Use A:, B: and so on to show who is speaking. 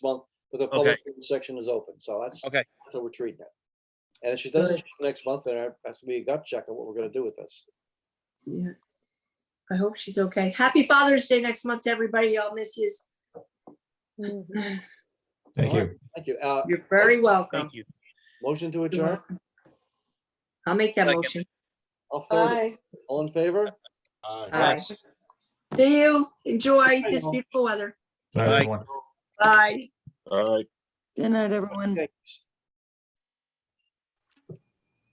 A: month, but the public hearing section is open, so that's,
B: Okay.
A: that's how we're treating it. And if she doesn't show up next month, then it has to be a gut check on what we're gonna do with this.
C: Yeah. I hope she's okay. Happy Father's Day next month to everybody. I'll miss you.
D: Thank you.
A: Thank you. Uh,
C: You're very welcome.
B: Thank you.
A: motion to
C: You're
A: adjourn,
C: welcome. I'll make that
B: Second.
C: motion.
A: I'll forward it.
E: Bye.
A: All in favor? 哎
C: Aye. See you. Enjoy this beautiful weather.
D: Bye,
B: Bye.
D: everyone.
C: Bye.
E: Good night, everyone.
A: Thanks.